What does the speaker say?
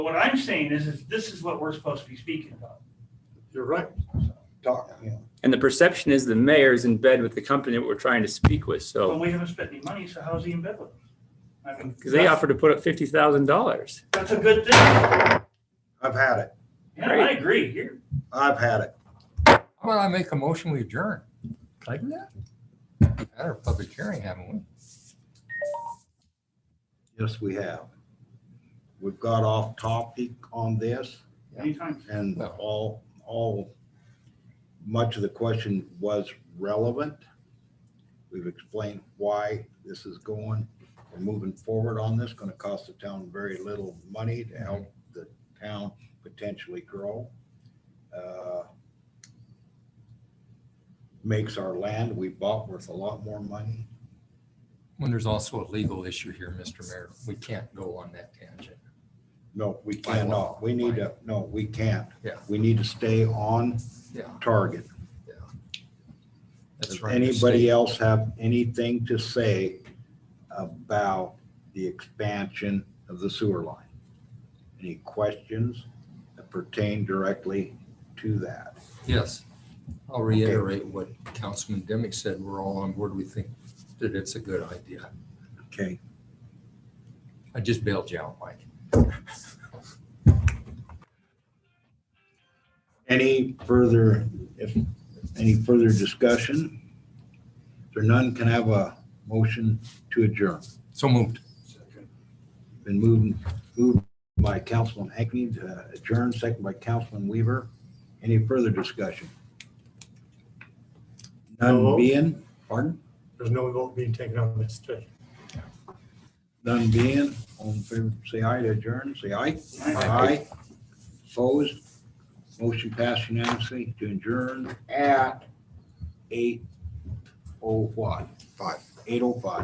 What I'm saying is, is this is what we're supposed to be speaking about. You're right. talk, you know. And the perception is the mayor is in bed with the company that we're trying to speak with. But So, we haven't spent any money, so how's he in bed with them? I mean, because they offered to put up fifty thousand dollars. That's a good thing. Yeah, I've had it. I Great. agree. You're, I've had it. How about I make a motion, we adjourn? Can I do that? Had our public hearing, haven't we? Yes, we have. We've got off topic on this anytime. and No. all, all, much of the question was relevant. We've explained why this is going. We're moving forward on this, going to cost the town very little money to help the town potentially grow. Uh, Makes our land we bought worth a lot more money. When there's also a legal issue here, Mr. Mayor, we can't go on that tangent. No, we By law. cannot. We need to, no, we can't. Yeah. We need to stay on Yeah, target. that's Does right. anybody else have anything to say about the expansion of the sewer line? Any questions that pertain directly to that? Yes. I'll reiterate what Councilman Demick said. We're all on board. We think that it's a good idea. Okay, I just bailed you out, Mike. any further, if, any further discussion? If there none, can I have a motion to adjourn? So moved. Been moved, moved by Councilman Hackney to adjourn, second by Councilman Weaver. Any further discussion? None No. being, pardon? There's no vote being taken on this today. None being, all in favor, say aye to adjourn, say aye. Aye. Opposed? Motion passed unanimously to adjourn at eight oh what? Five. Eight oh five.